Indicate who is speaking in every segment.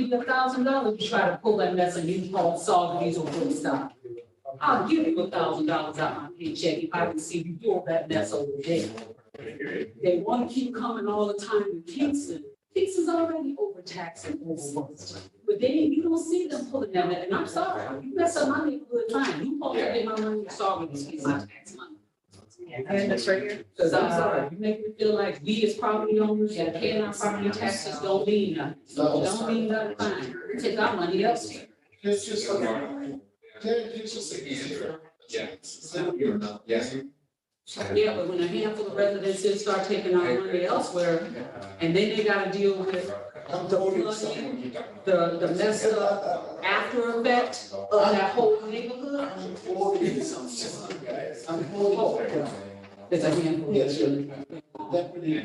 Speaker 1: me a thousand dollars to try to pull that mess and you call solve these or do stuff. I'll give you a thousand dollars out of my paycheck if I can see you doing that mess over there. They want to keep coming all the time to Kingston. Kingston's already overtaxed and overworked. But they, you don't see them pulling that, and I'm sorry, you mess up my neighborhood fine. You pull that in my money, you're sorry, it's my tax money.
Speaker 2: And this right here?
Speaker 1: Cause I'm sorry, you make me feel like we as property owners that pay our property taxes don't mean nothing. Don't mean nothing, fine, take our money elsewhere.
Speaker 3: It's just like, yeah, it's just like easier.
Speaker 4: Yeah.
Speaker 3: So, you know, yeah.
Speaker 1: Yeah, but when a handful of residences start taking our money elsewhere, and then they gotta deal with
Speaker 3: I'm totally someone.
Speaker 1: the, the mess up after effect of that whole neighborhood,
Speaker 3: I'm totally someone, guys. I'm totally.
Speaker 1: there's a handful.
Speaker 3: Yes, sir. Deputy.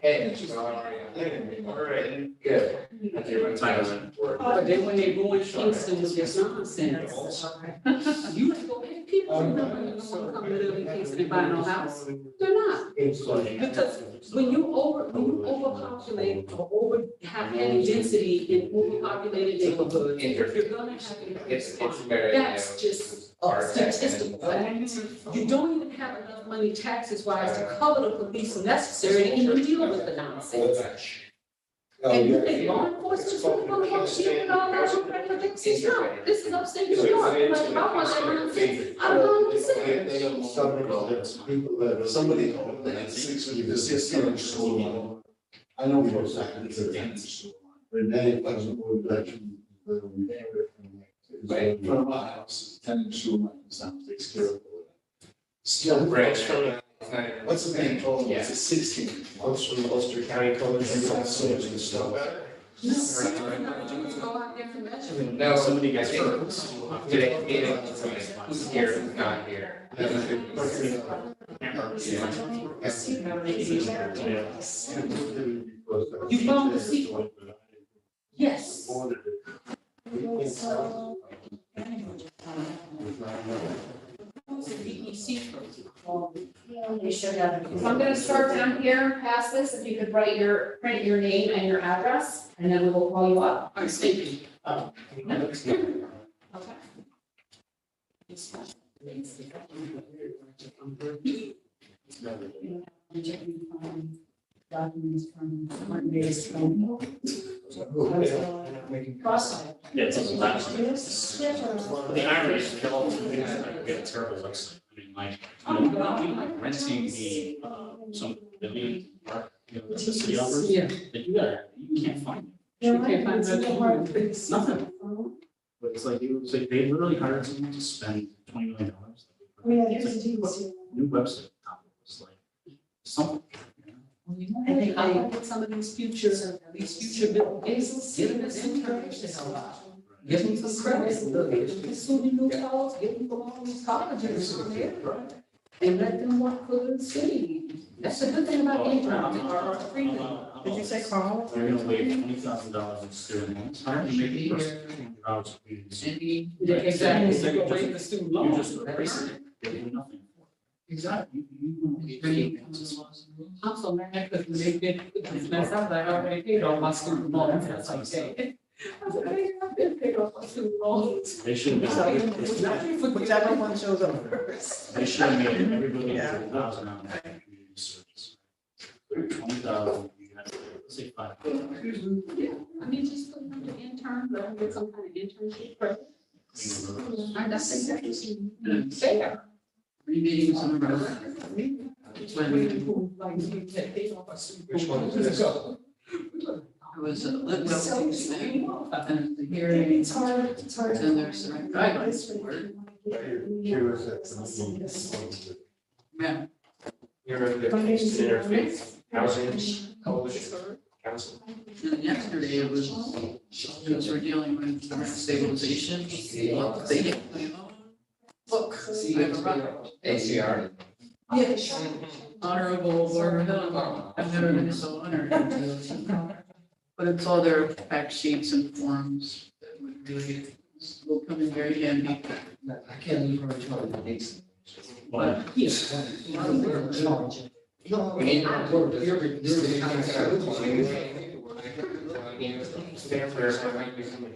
Speaker 4: Hey.
Speaker 3: Alright. Good.
Speaker 1: But then when they go in Kingston with this nonsense, you ain't gonna have people,
Speaker 3: Um,
Speaker 1: who don't wanna come to live in Kingston and buy no house, they're not. Because When you over, when you overpopulate or over, have any density in overpopulated neighborhoods, you're gonna have an
Speaker 4: It's,
Speaker 1: increase
Speaker 4: it's
Speaker 1: crime.
Speaker 4: very.
Speaker 1: That's just a statistical fact. You don't even have enough money taxes wise to cover the police necessary to even deal with the nonsense.
Speaker 4: Oh,
Speaker 3: Oh,
Speaker 1: And you think law enforcement is really gonna help you with all that your predictions? No, this is upstate New York, like, if I want that nonsense, I don't know what to say.
Speaker 3: People that, somebody, that six, when you just see a sandwich store. I know for a second, it's a dance store. Renee, like, we like, we
Speaker 4: Right.
Speaker 3: From my house, ten store, sound takes care of it. Still.
Speaker 5: Branch.
Speaker 3: What's the name, total,
Speaker 4: Yeah.
Speaker 3: it's a sixteen.
Speaker 5: One's from Ulster County College.
Speaker 3: It's like so much good stuff.
Speaker 1: No, seriously, no, you just go out there and measure.
Speaker 4: No,
Speaker 5: Somebody
Speaker 4: I
Speaker 5: gets hurt.
Speaker 4: think today, meeting, who's here, who's not here.
Speaker 1: You found the secret. Yes. Who's the DEC person?
Speaker 6: They should have. So I'm gonna start down here, pass this, if you could write your, print your name and your address, and then we will call you up.
Speaker 1: I'm thinking.
Speaker 6: Okay.
Speaker 1: it's not- I'm checking um, Documents from Martin Davis. Cross.
Speaker 5: Yeah, it's also last. The
Speaker 1: The
Speaker 5: irony is, they're all, we have terrible looks. I mean, like, you know, I mean, like renting the, uh, some, the main park, you know, the city offers,
Speaker 1: Yeah.
Speaker 5: that you gotta, you can't find.
Speaker 1: You can't find that.
Speaker 5: It's nothing. But it's like, it was like, they literally hired someone to spend twenty million dollars. New website, it's like, something. you know?
Speaker 1: I think I look at some of these future, these future Bill Gates, give them this information. Give them some credit, look, give them SUNY New Falls, give them from all these colleges out there. And let them work for the city. That's the good thing about Ingram, our, our freedom.
Speaker 5: I'm all- I'm
Speaker 2: Did
Speaker 5: all-
Speaker 2: you say Carl?
Speaker 5: They're gonna waive twenty thousand dollars in student loans. How do you make the first dollars? You just
Speaker 1: Exactly, you can waive the student loan.
Speaker 5: erase it, they do nothing. Exactly.
Speaker 1: I'm so mad because when they did this mess up, I already paid all my student loans, that's like, hey. I said, hey, I've been paid off my student loans.
Speaker 5: They should
Speaker 1: It's not
Speaker 5: have,
Speaker 1: even for-
Speaker 2: Whichever one shows up first.
Speaker 5: they should have made everybody a thousand on that community service. Twenty thousand, you have, let's say five. Clean
Speaker 1: Yeah, I mean, just put them to intern, let them get some kind of internship. program.
Speaker 5: the roads.
Speaker 1: I that's exactly fair. Remedying some of our. It's when we. Like, we take paid off our student.
Speaker 3: Which one is this?
Speaker 7: It was a lived up
Speaker 1: So,
Speaker 7: thing, and the hearing,
Speaker 6: It's hard, it's hard.
Speaker 7: and there's some guidelines for it. Yeah,
Speaker 5: You're the Kingston Interfaith Housing Coalition Council.
Speaker 7: and yesterday it was, because we're dealing with rent stabilization, what they get my loan. Look, I have a right.
Speaker 4: ACR.
Speaker 7: honorable Barbara Hill, I've never been so honored. But it's all their fact sheets and forms that would really, will come in very handy.
Speaker 3: I can't leave her alone. It's-
Speaker 5: But
Speaker 4: We need.
Speaker 3: You're- you're-
Speaker 5: "Oh,
Speaker 4: This is kind of- there, there might be some.